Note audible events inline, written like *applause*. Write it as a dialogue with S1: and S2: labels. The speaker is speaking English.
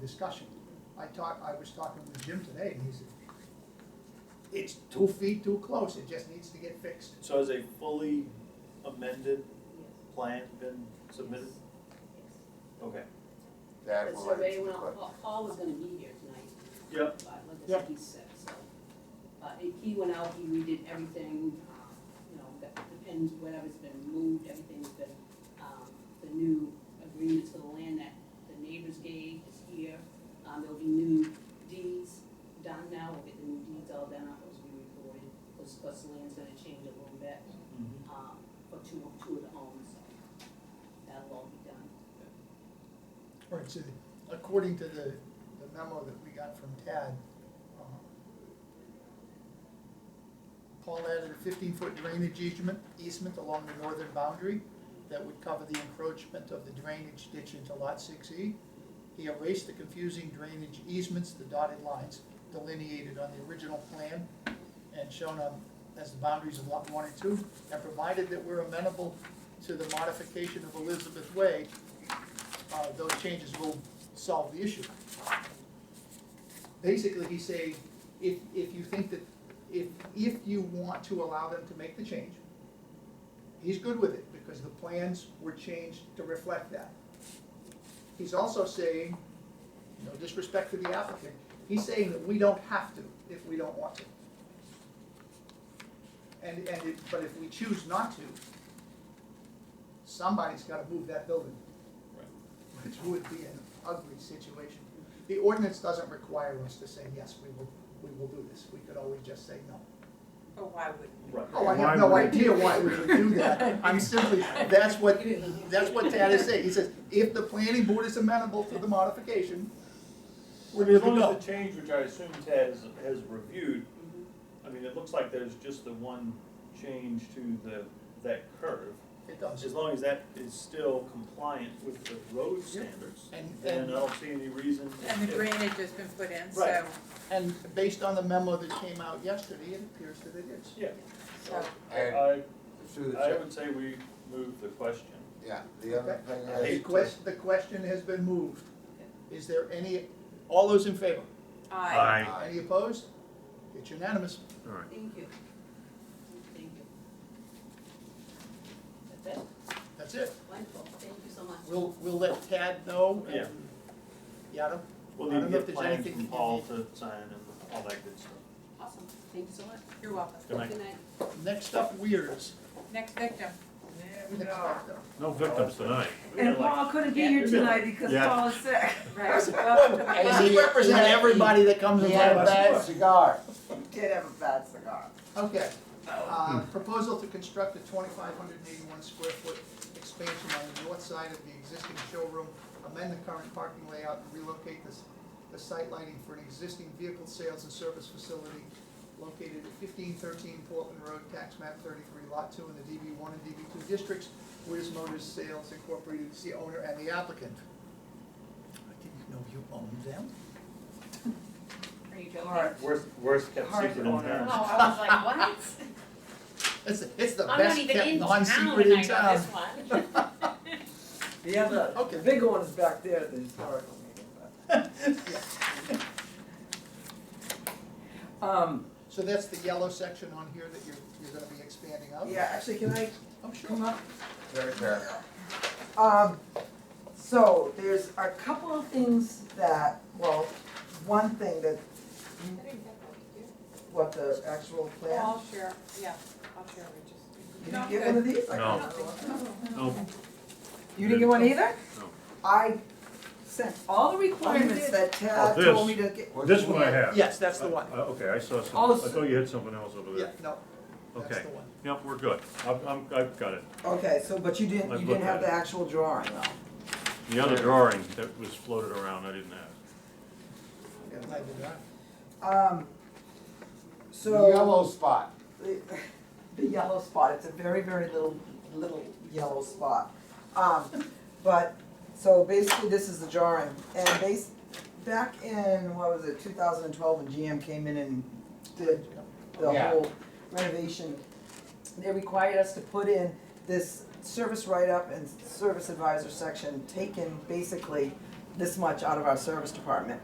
S1: discussion. I talked, I was talking with Jim today, and he said, it's two feet too close, it just needs to get fixed.
S2: So has a fully amended plan been submitted? Okay.
S3: That
S4: But
S3: will
S4: so
S3: answer
S4: they
S3: the
S4: went out-
S3: question.
S4: Paul, Paul was gonna be here tonight,
S2: Yep.
S4: but like I
S1: Yep.
S4: said, he's sick, so. Uh, he- he went out, he redid everything, um, you know, got the pins, whatever's been moved, everything's been, um, the new agreements for the land that the neighbors gave is here. Um, there'll be new deeds done now, we'll get the new deeds all done, those will be recorded, because, because the land's gonna change a little bit,
S2: Mm-hmm.
S4: um, for two, two of the homes, so. That'll all be done.
S1: Right, so according to the, the memo that we got from Tad, uh, Paul added a fifteen-foot drainage easement, easement along the northern boundary that would cover the encroachment of the drainage ditch into lot six E. He erased the confusing drainage easements, the dotted lines delineated on the original plan and shown on, as the boundaries of lot one and two, and provided that we're amenable to the modification of Elizabeth Way, uh, those changes will solve the issue. Basically, he's saying, if, if you think that, if, if you want to allow them to make the change, he's good with it, because the plans were changed to reflect that. He's also saying, no disrespect to the applicant, he's saying that we don't have to if we don't want to. And, and, if- but if we choose not to, somebody's gotta move that building which would be an ugly situation. The ordinance doesn't require us to say, yes, we will, we will do this, we could always just say no.
S5: But why wouldn't
S2: Right.
S1: Oh, I have
S6: Why
S1: no
S6: would-
S1: idea why we would do that, I'm simply, that's what, that's what Tad is saying, he says, if the planning board is amenable to the modification, we're
S2: I mean,
S1: good
S2: as
S1: to
S2: long
S1: go.
S2: as the change, which I assume Ted has, has reviewed,
S1: Mm-hmm.
S2: I mean, it looks like there's just the one change to the, that curve.
S1: It does,
S2: As long as that is still compliant with the road standards,
S1: And-
S2: then
S1: and-
S2: I don't see any reason.
S5: And the
S2: if-
S5: drainage has been put in, so,
S2: Right.
S1: and based on the memo that came out yesterday, it appears that it is.
S2: Yeah,
S5: so,
S3: And
S2: I,
S3: through the
S2: I
S3: chair,
S2: would say we move the question.
S3: yeah, the other thing
S2: I
S1: The
S3: is,
S2: hate-
S1: question, the question has been moved, is there any, all those in favor?
S5: aye.
S3: Aye.
S1: Any opposed? It's unanimous.
S6: All right.
S4: Thank you. Thank you. That's it,
S1: That's it.
S4: wonderful, thank you so much.
S1: We'll, we'll let Tad know.
S2: Yeah.
S1: and Yada.
S2: We'll
S1: I don't
S2: need to
S1: know if
S2: get
S1: there's
S2: plans
S1: anything
S2: from
S1: that you
S2: Paul
S1: need.
S2: to sign and all that good stuff.
S4: Awesome, thank you so much.
S5: You're welcome.
S2: Good night.
S4: Good night.
S1: Next up, Weirs.
S5: Next victim.
S1: Next up, though.
S6: No victims tonight.
S2: We
S7: And
S2: got like-
S7: Paul couldn't be here tonight because
S6: Yeah.
S7: Paul is sick.
S5: Right, welcome to the
S3: Hey,
S1: Does
S5: club.
S1: he represent everybody that comes in
S3: he
S1: front
S3: had
S1: of us?
S3: a bad cigar.
S7: Did have a bad cigar.
S1: Okay. Uh, Proposal to construct a twenty-five hundred and eighty-one square foot expansion on the north side of the existing showroom, amend the current parking layout, and relocate this, the site lighting for an existing vehicle sales and service facility located at fifteen thirteen Portland Road, tax map thirty-three, lot two, in the DB one and DB two districts. Wiz Motors Sales Incorporated is the owner and the applicant. I didn't know you owned them.
S5: Are
S4: *laughs*
S5: you joking?
S7: Alright.
S2: Worst, worst kept
S7: Hard
S2: secret in
S7: owner.
S2: town.
S4: Oh, I was like, what?
S1: It's, it's *laughs* the
S4: I'm
S1: best
S4: not even
S1: kept
S4: in town
S1: non-secret
S4: when
S1: in
S4: I got this
S1: town.
S4: one.
S7: The other,
S1: Okay.
S7: the bigger one is back there, the historical meeting, *laughs* but. Um,
S1: So that's the yellow section on here that you're, you're gonna be expanding out?
S7: yeah, actually, can I
S1: Oh, sure.
S7: come up?
S3: Very bad.
S7: Um, so there's a couple of things that, well, one thing that, what the actual
S5: Well,
S7: plan,
S5: I'll share, yeah, I'll share, it, just.
S7: did
S5: No,
S7: you
S5: I'm
S7: get one
S5: good. Oh.
S7: of these? I
S6: No.
S7: don't think so.
S6: No,
S7: You didn't get one either?
S6: No.
S7: I sent all the requirements that Tad
S6: Oh,
S7: told me to get.
S6: this one I have.
S1: Yes, that's the one.
S6: Uh, Okay, I saw some,
S7: Oh,
S6: I
S7: s-
S6: thought you had something else over
S1: Yeah,
S6: there.
S1: no, that's
S6: Okay,
S1: the one.
S6: yep, we're good. I'm, I'm, I've got it.
S7: Okay, so, but you didn't,
S6: I've
S7: you
S6: looked
S7: didn't have
S6: at it.
S7: the actual drawing though.
S6: The other drawing that was floated around, I didn't have.
S1: I did that.
S7: Um,
S3: The
S7: so.
S3: yellow spot,
S7: the- The yellow spot, it's a very, very little, little yellow spot. Um, but, so basically this is the drawing, and base, back in, what was it, two thousand and twelve, when GM came in and did the
S3: Yeah.
S7: whole renovation. They required us to put in this service write-up and service advisor section, taken basically this much out of our service department.